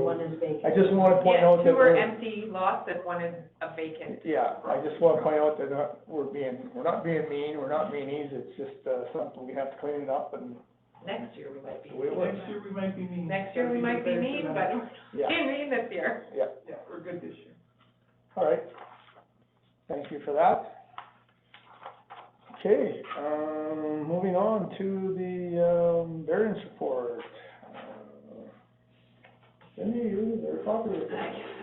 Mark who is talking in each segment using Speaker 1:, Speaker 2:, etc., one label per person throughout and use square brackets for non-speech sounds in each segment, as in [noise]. Speaker 1: and vacant.
Speaker 2: I just wanna point
Speaker 3: Yeah,
Speaker 2: out
Speaker 3: two
Speaker 2: that
Speaker 3: are
Speaker 2: we're,
Speaker 3: empty lots and one is a vacant.
Speaker 2: yeah, I just wanna point out that uh, we're being, we're not being mean, we're not meanies, it's just, uh, something we have to clean it up and,
Speaker 3: Next year we might be.
Speaker 2: We will.
Speaker 4: Next year, we might be mean.
Speaker 3: Next year we might be mean, but
Speaker 2: yeah,
Speaker 3: we're mean this year.
Speaker 4: Yeah, we're good this year.
Speaker 2: all right. Thank you for that. Okay, um, moving on to the, um, variance report. Cindy, you, they're popular.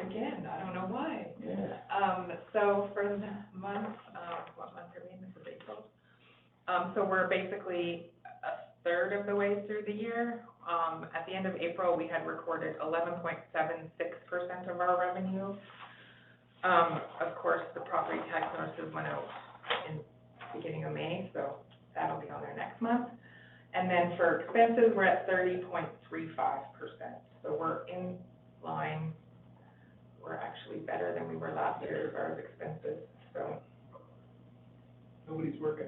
Speaker 3: Again, I don't know why.
Speaker 2: Yeah.
Speaker 3: Um, so for the month, um, what month are we in, this is April. Um, so we're basically a third of the way through the year. Um, at the end of April, we had recorded eleven point seven six percent of our revenue. Um, of course, the property tax notices went out in beginning of May, so that'll be on there next month. And then for expenses, we're at thirty point three five percent, so we're in line we're actually better than we were last year as far as expenses, so.
Speaker 4: Nobody's working.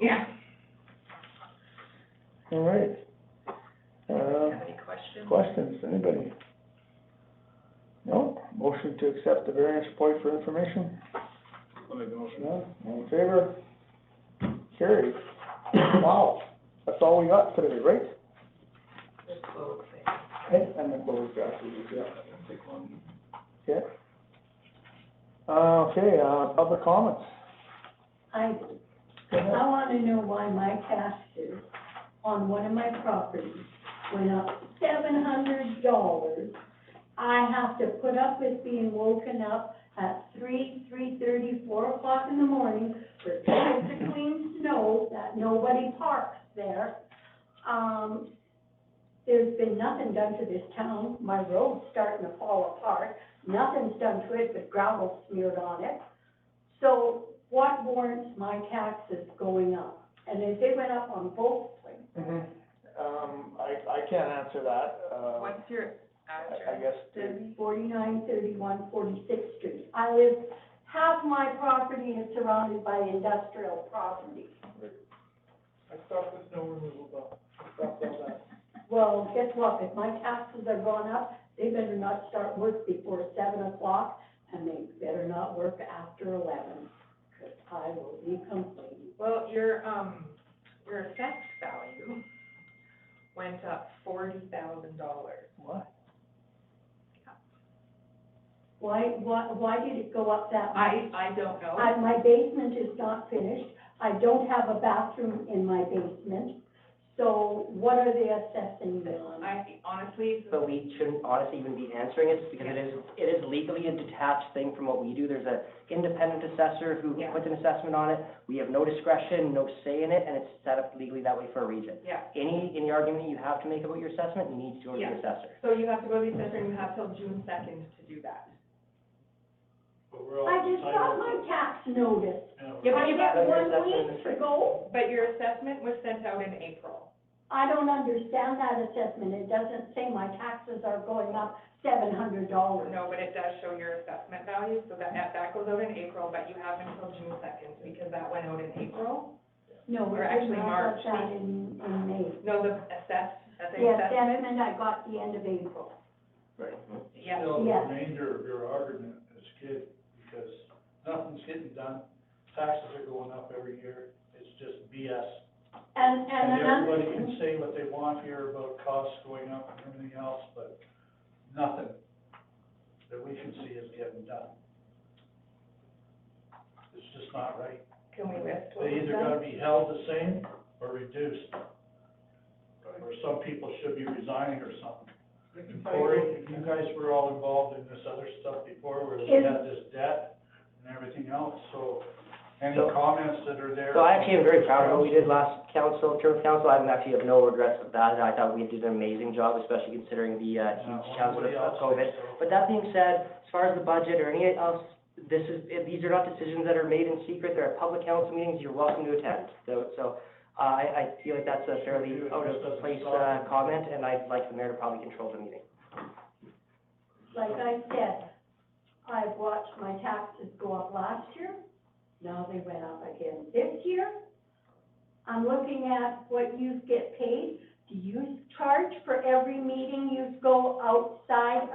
Speaker 3: Yeah.
Speaker 2: All right. Uh,
Speaker 3: Have any questions?
Speaker 2: Questions, anybody? No? Motion to accept the variance report for information?
Speaker 4: I'll make the motion.
Speaker 2: No? All in favor? Carried. [coughs] Wow, that's all we got today, right?
Speaker 3: Just close it.
Speaker 2: And and the closed draft, we did,
Speaker 4: That doesn't take long.
Speaker 2: yeah, okay. Uh, okay, uh, public comments.
Speaker 1: I,
Speaker 2: Go ahead.
Speaker 1: I wanna know why my taxes on one of my properties went up seven hundred dollars. I have to put up with being woken up at three, three thirty, four o'clock in the morning for trying to clean snow that nobody parks there. Um, there's been nothing done to this town, my road's starting to fall apart, nothing's done to it but gravel smeared on it. So what warrants my taxes going up? And if they went up on both places,
Speaker 2: Mm-hmm. Um, I, I can't answer that, uh, I-
Speaker 3: What's your
Speaker 2: I
Speaker 3: address?
Speaker 2: guess, the-
Speaker 1: thirty, forty-nine, thirty-one, forty-sixth street. I live, half my property is surrounded by industrial property.
Speaker 4: I stopped the snow removal, though. I stopped all that.
Speaker 1: Well, guess what, if my taxes are going up, they better not start work before seven o'clock, and they better not work after eleven, because I will be complaining.
Speaker 3: Well, your, um, your assessed value went up forty thousand dollars.
Speaker 2: what?
Speaker 1: Why, why, why did it go up that much?
Speaker 3: I, I don't know.
Speaker 1: I, my basement is not finished, I don't have a bathroom in my basement, so what are they assessing me on?
Speaker 3: I honestly,
Speaker 5: But we shouldn't honestly even be answering it, just because it is, it is legally a detached thing from what we do. There's a independent assessor who
Speaker 3: Yeah.
Speaker 5: puts an assessment on it. We have no discretion, no say in it, and it's set up legally that way for a reason.
Speaker 3: yeah.
Speaker 5: Any, any argument you have to make about your assessment needs to go to
Speaker 3: Yeah.
Speaker 5: the assessor.
Speaker 3: So you have to go to the assessor and you have till June second to do that.
Speaker 4: But we're all.
Speaker 1: I just got my tax notice,
Speaker 3: Yeah, but
Speaker 1: I
Speaker 3: you
Speaker 1: got
Speaker 3: got,
Speaker 1: one
Speaker 5: That's in the
Speaker 1: week to
Speaker 5: spring.
Speaker 1: go,
Speaker 3: but your assessment was sent out in April.
Speaker 1: I don't understand that assessment, it doesn't say my taxes are going up seven hundred dollars.
Speaker 3: No, but it does show your assessment value, so that, that goes out in April, but you have until June second, because that went out in April.
Speaker 1: No,
Speaker 3: Or
Speaker 1: it
Speaker 3: actually
Speaker 1: didn't, I
Speaker 3: March.
Speaker 1: got that in, in May.
Speaker 3: No, the assessed, that's the
Speaker 1: The
Speaker 3: assessment,
Speaker 1: assessment I got the end of April.
Speaker 3: yeah.
Speaker 4: Still, the
Speaker 1: Yes.
Speaker 4: remainder of your argument is kid, because nothing's getting done, taxes are going up every year, it's just BS.
Speaker 1: And, and
Speaker 4: And
Speaker 1: another
Speaker 4: everybody
Speaker 1: thing,
Speaker 4: can say what they want here about costs going up and everything else, but nothing that we can see is getting done. It's just not right.
Speaker 3: Can we list what
Speaker 4: They
Speaker 3: was
Speaker 4: either
Speaker 3: done?
Speaker 4: gotta be held the same or reduced. Or some people should be resigning or something. And Cory, you guys were all involved in this other stuff before, where we had this debt and everything else, so any
Speaker 5: So-
Speaker 4: comments that are there?
Speaker 5: So I actually am very proud of what we did last council, term council. I actually have no regrets of that. I thought we did an amazing job, especially considering the, uh,
Speaker 4: Uh,
Speaker 5: huge challenge
Speaker 4: nobody else
Speaker 5: of COVID.
Speaker 4: thinks so.
Speaker 5: But that being said, as far as the budget or any else, this is, these are not decisions that are made in secret, they're at public council meetings, you're welcome to attend. So, so, uh, I, I feel like that's a fairly out of place, uh, comment, and I'd like the mayor to probably control the meeting.
Speaker 1: like I said, I've watched my taxes go up last year, now they went up again this year. I'm looking at what you get paid, do you charge for every meeting you go outside of?